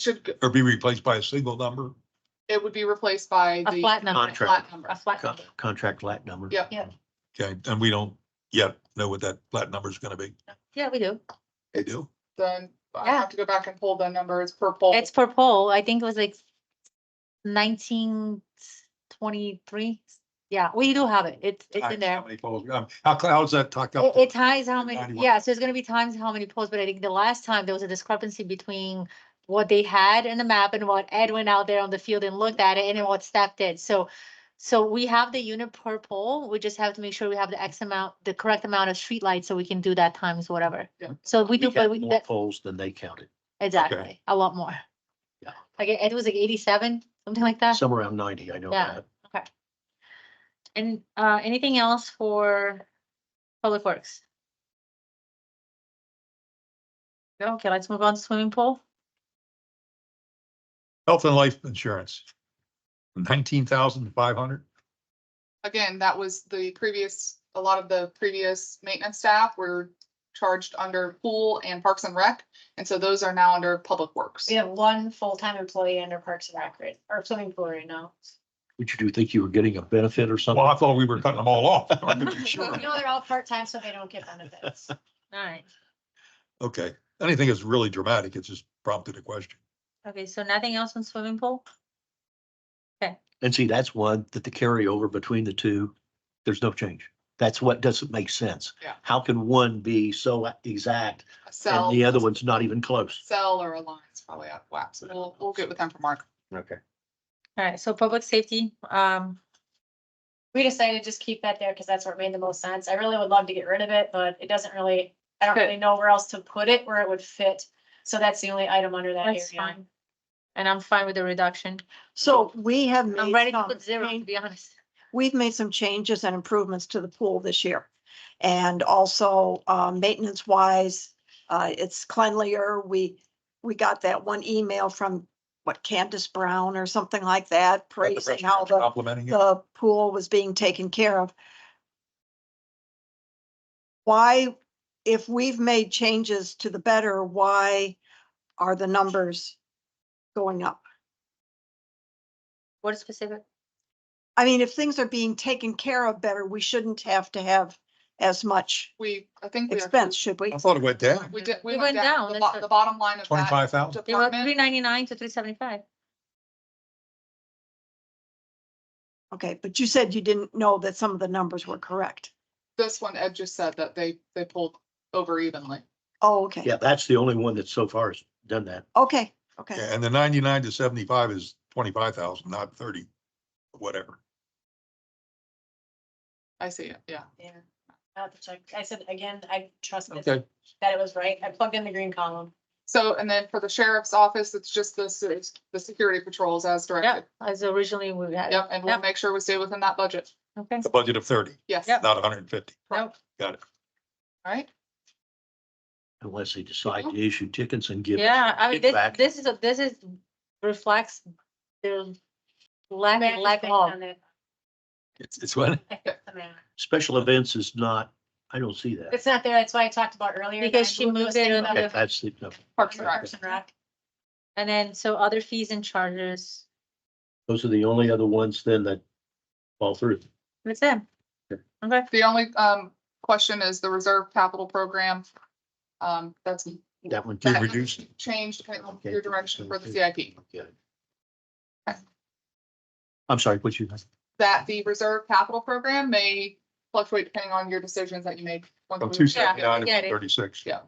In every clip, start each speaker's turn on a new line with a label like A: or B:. A: should, go-
B: or be replaced by a single number?
A: it would be replaced by
C: A
A: the
C: flat number,
D: Contract.
A: flat number.
C: a flat
D: Con-
C: number.
D: Contract lat number.
A: Yep.
C: Yep.
B: Okay, and we don't yet know what that flat number is gonna be.
C: Yeah, we do.
B: They do.
A: Then I
C: Yeah.
A: have to go back and pull the numbers per poll.
C: It's per poll. I think it was like nineteen twenty-three. Yeah, we do have it. It's, it's in
B: Times how
C: there.
B: many polls- um, How, how's that talked
C: It,
B: up?
C: it ties how many,
B: 91.
C: yeah, so it's gonna be times how many polls, but I think the last time there was a discrepancy between what they had in the map and what Ed went out there on the field and looked at it and then what staff did. So, so we have the unit per poll. We just have to make sure we have the X amount, the correct amount of streetlights so we can do that times whatever.
A: Yeah.
C: So we do,
D: We
C: but
D: got
C: we,
D: more
C: that-
D: polls than they counted,
C: exactly, a lot more.
D: Yeah.
C: Like it it was like eighty-seven, something like that.
D: somewhere around ninety, I know
C: Yeah.
D: that.
C: And uh, anything else for Public Works? No, okay, let's move on to swimming pool.
B: Health and life insurance. Nineteen thousand five hundred?
A: Again, that was the previous, a lot of the previous maintenance staff were charged under pool and parks and rec. And so those are now under public works.
E: We have one full-time employee under Parks and Rec right- or swimming pool right now.
D: Would you do think you were getting a benefit or
B: Well,
D: something?
B: I thought we were cutting them all off.
E: No, they're all part-time, so they don't get benefits.
C: All right.
B: Okay, anything that's really dramatic, it's just prompted a question.
C: Okay, so nothing else on swimming pool?
D: And see, that's one that the carryover between the two, there's no change. That's what doesn't make sense.
A: Yeah.
D: How can one be so exact
A: A
D: and
A: cell,
D: the other one's not even close?
A: cell or a line is probably out of whack. So we'll, we'll get with them for Mark.
D: Okay.
C: All right, so public safety, um,
E: We decided to just keep that there because that's where it made the most sense. I really would love to get rid of it, but it doesn't really, I don't
A: Fit.
E: really know where else to put it where it would fit. So that's the only item under that
C: that's
E: area.
C: fine. And I'm fine with the reduction.
F: So we have
C: I'm
F: made
C: ready to put
F: some,
C: zero, to
F: change-
C: be honest.
F: we've made some changes and improvements to the pool this year. And also, uh, maintenance wise, uh, it's cleanlier. We, we got that one email from, what, Candace Brown or something like that, praising how the,
B: Complimenting it.
F: the pool was being taken care of. Why, if we've made changes to the better, why are the numbers going up?
C: What is specific?
F: I mean, if things are being taken care of better, we shouldn't have to have as much
A: We, I think we are,
F: expense, should we?
B: I thought it went down,
A: we did, we
C: We
A: went down.
C: went down,
A: The
C: that's
A: bo-
C: what-
A: the bottom line of that
B: twenty-five thousand?
C: They were
A: department.
C: three ninety-nine to three seventy-five.
F: Okay, but you said you didn't know that some of the numbers were correct.
A: This one, Ed just said that they, they pulled over evenly.
F: Oh, okay,
D: Yeah, that's the only one that so far has done that.
F: okay, okay.
B: Yeah, and the ninety-nine to seventy-five is twenty-five thousand, not thirty, whatever.
A: I see it, yeah.
E: Yeah. I'll have to check. I said, again, I trust this-
B: Okay.
E: that it was right. I plugged in the green column.
A: So, and then for the sheriff's office, it's just the, se- the security patrols as
C: Yeah,
A: directed.
C: as originally we had.
A: Yep, and we'll
C: Yep,
A: make sure we stay within that budget.
C: Okay.
B: A budget of thirty,
A: Yes,
C: Yep.
A: All
B: not hundred and fifty.
C: Nope.
B: Got it.
A: right.
D: Unless they decide to issue tickets and give.
C: Yeah, I mean, this,
D: feedback.
C: this is, a this is reflects their lack,
E: Matt,
C: lack
E: click
C: of.
E: on it.
B: It's, it's what?
E: I clicked on that.
D: Special events is not, I don't see that.
E: It's not there. That's why I talked about earlier. that
C: Because
E: I
C: she moved
E: those
C: it
E: things
C: on
E: out
D: Okay,
E: of
D: That's the, no,
A: Parks and Rec.
E: Parks and Rec.
C: And then, so other fees and charges,
D: those are the only other ones then that fall through.
C: that's it.
D: Sure.
C: Okay,
A: The only, um, question is the reserve capital program. Um, that's.
D: That one
A: that
D: too
A: has
D: reduced.
A: Changed depending on
D: Okay.
A: your direction for the CIP,
D: Okay.
A: Okay.
D: I'm sorry, what you,
A: that the reserve capital program may fluctuate depending on your decisions that you make. once
B: From
A: we-
B: Oh, two seventy-nine
C: Yeah, I get
B: to
C: it.
B: thirty-six.
A: Yeah.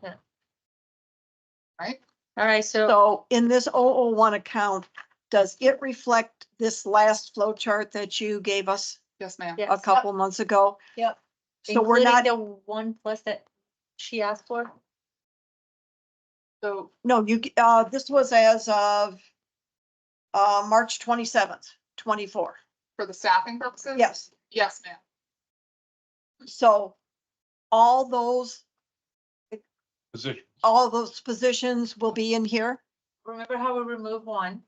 C: all right, so,
F: So in this 001 account, does it reflect this last flow chart that you gave us
A: Yes, ma'am.
C: yeah,
F: a couple months ago?
E: Yep.
F: So we're not,
C: The one plus that she asked for,
A: So,
F: no, you, uh, this was as of uh, March twenty-seventh, twenty-four.
A: for the staffing purposes?
F: Yes.
A: Yes, ma'am.
F: So all those,
B: Position.
F: all those positions will be in here?
C: remember how we removed one?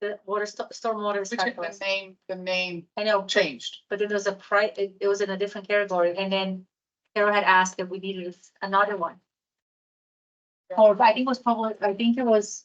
C: The water, sto- stormwater.
A: We took the
C: specialist.
A: name, the name
C: I know, but-
A: changed.
C: but then there was a price, it, it was in a different category, and then Carol had asked if we needed another one. or I think it was probably, I think it was